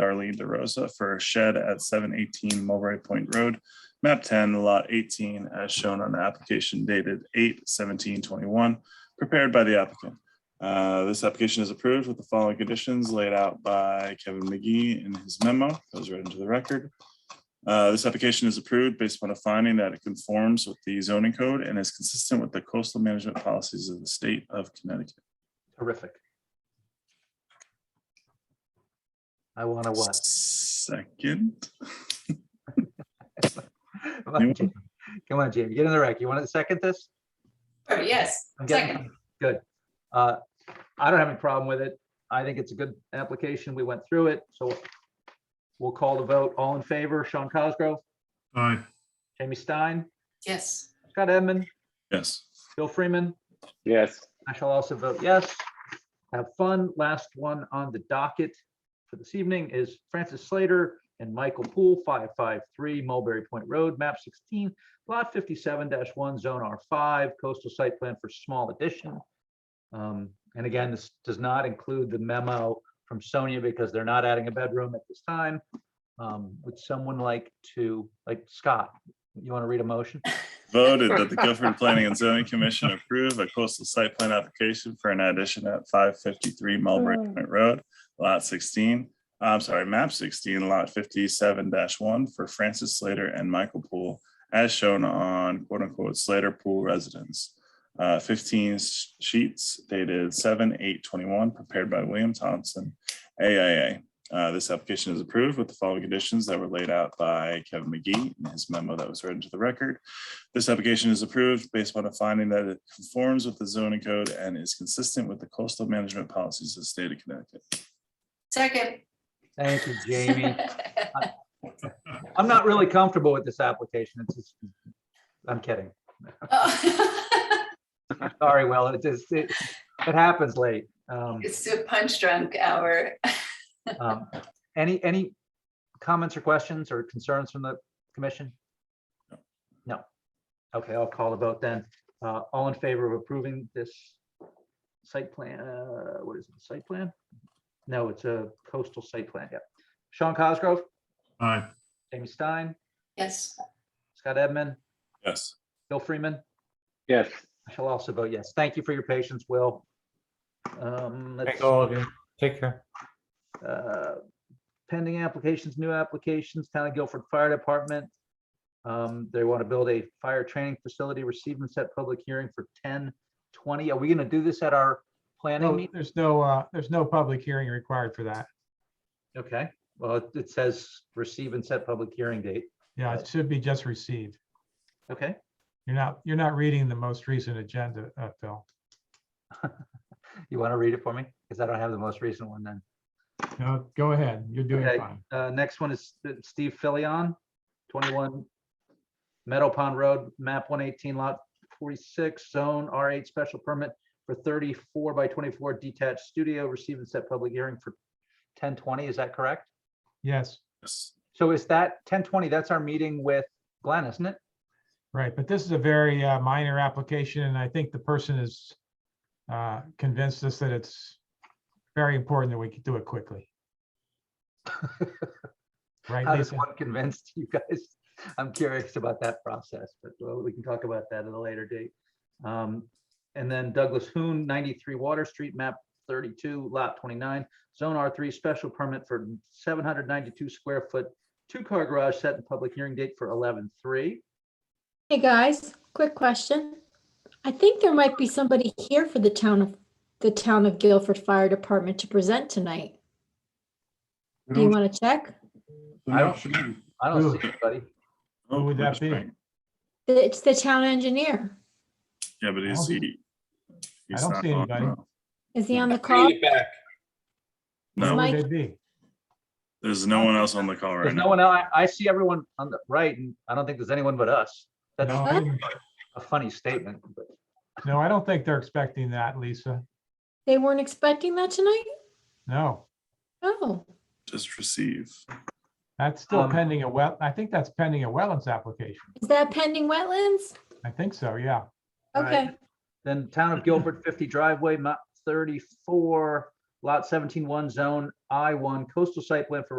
Darlene DeRosa for a shed at seven eighteen Mulberry Point Road, map ten, lot eighteen, as shown on the application dated 8-17-21, prepared by the applicant. Uh, This application is approved with the following conditions laid out by Kevin McGee in his memo, goes right into the record. Uh, This application is approved based upon a finding that it conforms with the zoning code and is consistent with the coastal management policies of the state of Connecticut. Terrific. I want to what? Second, Come on, Jamie. Come on, Jamie, get in the rec. You want to second this? Sure, yes, I'm getting- second. Good. Uh, I don't have any problem with it. I think it's a good application. We went through it, so we'll call the vote. All in favor, Sean Cosgrove, Aye. Jamie Stein, Yes, Scott Edmund, yes. Bill Freeman. yes, I shall also vote yes. Have fun. Last one on the docket for this evening is Francis Slater and Michael Poole, 553 Mulberry Point Road, map 16, lot 57-1, zone R5, coastal site plan for small addition. Um, And again, this does not include the memo from Sonia because they're not adding a bedroom at this time. Um, Would someone like to, like Scott, you want to read a motion? Voted that the Guilford Planning and Zoning Commission approve a coastal site plan application for an addition at five fifty-three Mulberry Point Road, lot sixteen. I'm sorry, map sixteen, lot fifty-seven one for Francis Slater and Michael Poole, as shown on quote unquote Slater Pool Residence. Uh, fifteen s- sheets dated seven, eight, twenty-one, prepared by William Thompson, AIA. Uh, this application is approved with the following conditions that were laid out by Kevin McGee in his memo that was read into the record. This application is approved based upon a finding that it conforms with the zoning code and is consistent with the coastal management policies of the state of Connecticut. second. Thank you, Jamie. I'm not really comfortable with this application. It's just, I'm kidding. Oh. Sorry, Will, it just, it, it happens late. Um, It's the punch drunk hour. um, any, any comments or questions or concerns from the commission? No. Okay, I'll call the vote then. Uh, all in favor of approving this site plan, uh, what is it, site plan? No, it's a coastal site plan, yeah. Sean Cosgrove, Aye. Jamie Stein, Yes, Scott Edmund, Yes. Bill Freeman. yes. I shall also vote yes. Thank you for your patience, Will. Um, let's, Thanks all of you. Take care. uh, Pending applications, new applications, Town of Guilford Fire Department. Um, They want to build a fire training facility, receive and set public hearing for ten twenty. Are we going to do this at our planning No, meeting? there's no, uh, there's no public hearing required for that. Okay, well, it- it says receive and set public hearing date. Yeah, it should be just received. Okay, You're not, you're not reading the most recent agenda, uh, Phil. you want to read it for me? Because I don't have the most recent one then. No, go ahead. You're doing Okay. fine. Uh, next one is uh, Steve Filion, twenty-one Meadow Pond Road, map one eighteen lot forty-six, zone R eight special permit for thirty-four by twenty-four detached studio, receive and set public hearing for ten twenty, is that correct? Yes, Yes. So is that ten twenty, that's our meeting with Glenn, isn't it? right. But this is a very uh, minor application and I think the person is uh, convinced us that it's very important that we could do it quickly. Right, How does Lisa? one convince you guys? I'm curious about that process, but well, we can talk about that at a later date. Um, And then Douglas Hoon, 93 Water Street, map 32, lot 29, zone R3, special permit for 792 square foot, two-car garage set in public hearing date for 11/3. Hey, guys, quick question. I think there might be somebody here for the town of, the town of Guilford Fire Department to present tonight. Do you want to check? I don't- I don't see anybody. Who would that be? It's the town engineer. Yeah, but is he? he's don't not see on, anybody. no. Is he on the call? Who No, Mike- would they be? there's no one else on the call right There's no now. one, else. I, I see everyone on the right, and I don't think there's anyone but us. That's No, a I didn't- funny statement, but No, I don't think they're expecting that, Lisa. They weren't expecting that tonight? No. Oh, Just receive. That's still Um, pending a well, I think that's pending a wetlands application. is that pending wetlands? I think so, yeah. All right. Okay, Then Town of Guilford, 50 driveway, map 34, lot 17-1, zone I-1, coastal site plan for